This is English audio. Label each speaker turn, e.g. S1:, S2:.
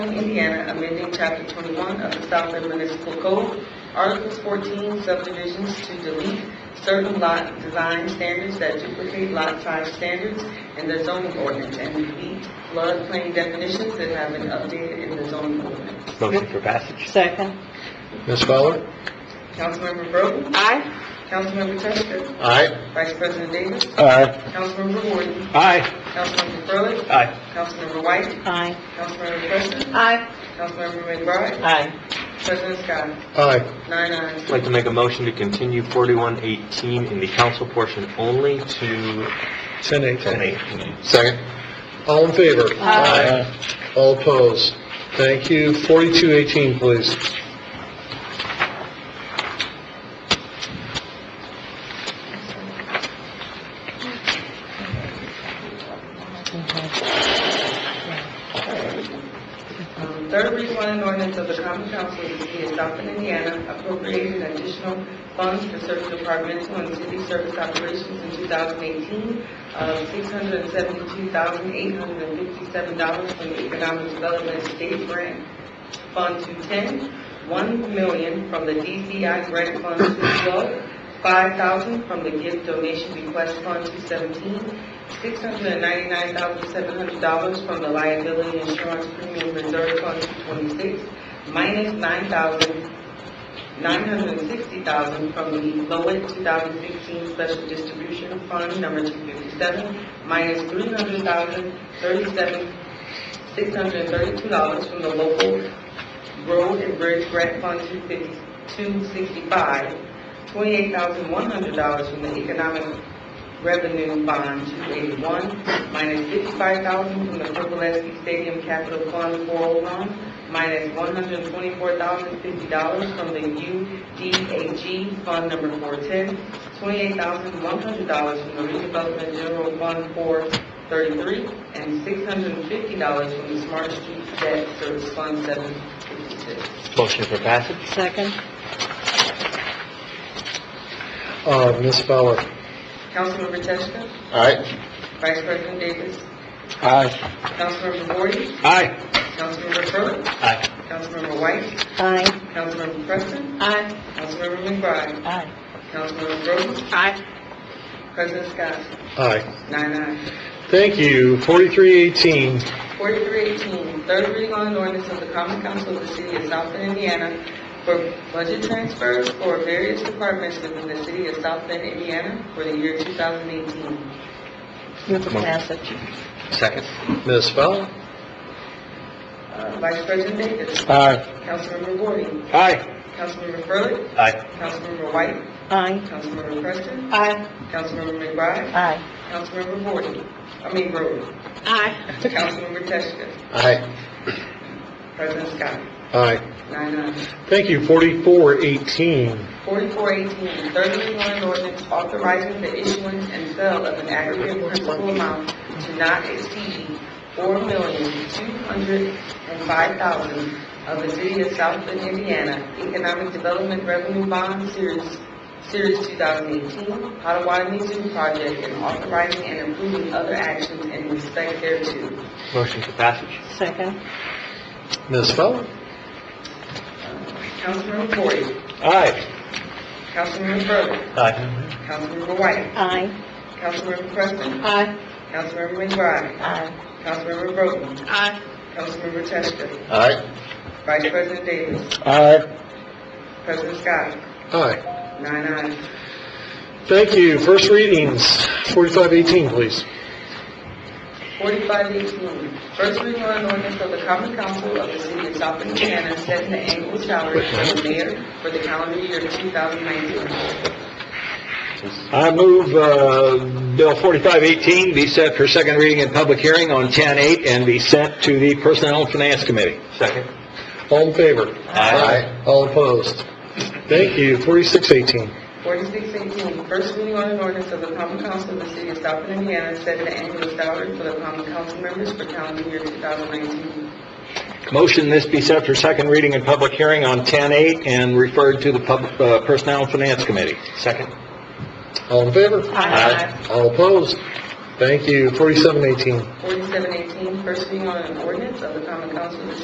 S1: Indiana, amending Chapter 21 of the Southland Municipal Code, Articles 14, subdivisions to delete certain lot design standards that duplicate lot size standards in the zoning ordinance and delete floodplain definitions that have been updated in the zoning ordinance.
S2: Motion for passage?
S3: Second.
S2: Ms. Fowler?
S1: Councilmember Broden,
S3: Aye.
S1: Councilmember Chester,
S2: Aye.
S1: Vice President Davis,
S2: Aye.
S1: Councilmember Wooden,
S2: Aye.
S1: Councilmember Furley,
S2: Aye.
S1: Councilmember White,
S3: Aye.
S1: Councilmember Preston,
S3: Aye.
S1: Councilmember McBride,
S3: Aye.
S1: President Scott,
S2: Aye.
S1: nine ayes.
S4: I'd like to make a motion to continue 4118 in the council portion only to
S2: Ten eight.
S4: 10:18.
S2: Second. All in favor?
S3: Aye.
S2: All opposed? Thank you. Forty-two eighteen, please.
S1: Um, Third reading on an ordinance of the common council of the city of Southland, Indiana, appropriating additional funds for certain departmental and city service operations in 2018 of $672,857 from the Economic Development State Grant Fund 210, $1 million from the DCI Grant Fund 212, $5,000 from the Gift Donation Request Fund 217, $699,700 from the Liability Insurance Premium Reserve Fund 226, minus $9,960,000 from the Lowit 2016 Special Distribution Fund Number 257, minus $300,037,632 from the local Road and Bridge Grant Fund 265, $28,100 from the Economic Revenue Bond 281, minus 55000 from the Purpleski Stadium Capital Fund 401, minus $124,050 from the UDAG Fund Number 410, $28,100 from the Redevelopment General Fund 433, and $650 from the Smart Streets Debt Service Fund 756.
S4: Motion for passage?
S3: Second.
S2: Uh, Ms. Fowler?
S1: Councilmember Teschka,
S2: Aye.
S1: Vice President Davis,
S2: Aye.
S1: Councilmember Gordon,
S2: Aye.
S1: Councilmember Furley,
S2: Aye.
S1: Councilmember White,
S3: Aye.
S1: Councilmember Preston,
S3: Aye.
S1: Councilmember McBride,
S3: Aye.
S1: Councilmember Rhodes,
S3: Aye.
S1: President Scott,
S2: Aye.
S1: nine ayes.
S2: Thank you. Forty-three eighteen.
S1: 4318, third reading on an ordinance of the common council of the city of Southland, Indiana for budget transfers for various departments within the city of Southland, Indiana for the year 2018.
S3: Move for passage.
S4: Second?
S2: Ms. Fowler?
S1: Uh, Vice President Davis,
S2: Aye.
S1: Councilmember Gordon,
S2: Aye.
S1: Councilmember Furley,
S4: Aye.
S1: Councilmember White,
S3: Aye.
S1: Councilmember Preston,
S3: Aye.
S1: Councilmember McBride,
S3: Aye.
S1: Councilmember Gordon, I mean Rhodes,
S3: Aye.
S1: Councilmember Teschka,
S2: Aye.
S1: President Scott,
S2: Aye.
S1: nine ayes.
S2: Thank you. Forty-four eighteen.
S1: 4418, third reading on an ordinance authorizing the issuance and sale of an aggregate principal amount to not exceed $4,205,000 of the City of South Bend, Indiana Economic Development Revenue Bond Series, Series 2018, Potawatomi Zoo Project, and authorizing and approving other actions in respect thereto.
S4: Motion for passage?
S3: Second.
S2: Ms. Fowler?
S1: Councilmember Corey,
S2: Aye.
S1: Councilmember Burley,
S2: Aye.
S1: Councilmember White,
S3: Aye.
S1: Councilmember Preston,
S3: Aye.
S1: Councilmember McBride,
S3: Aye.
S1: Councilmember Broden,
S3: Aye.
S1: Councilmember Teschka,
S2: Aye.
S1: Vice President Davis,
S2: Aye.
S1: President Scott,
S2: Aye.
S1: nine ayes.
S2: Thank you. First readings, forty-five eighteen, please.
S1: Forty-five eighteen, first reading on an ordinance of the common council of the city of South Bend, Indiana, setting the annual salary for the mayor for the calendar year two thousand nineteen.
S5: I move uh, Bill 4518 be set for second reading and public hearing on 10-8 and be sent to the Personnel and Finance Committee.
S4: Second?
S2: All in favor?
S5: Aye.
S2: All opposed? Thank you. Forty-six eighteen.
S1: Forty-six eighteen, first reading on an ordinance of the common council of the city of South Bend, Indiana, setting the annual salary for the common council members for calendar year two thousand nineteen.
S5: Motion this be set for second reading and public hearing on 10-8 and referred to the Pub- uh, Personnel and Finance Committee.
S4: Second?
S2: All in favor?
S3: Aye.
S2: All opposed? Thank you. Forty-seven eighteen.
S1: Forty-seven eighteen, first reading on an ordinance of the common council of the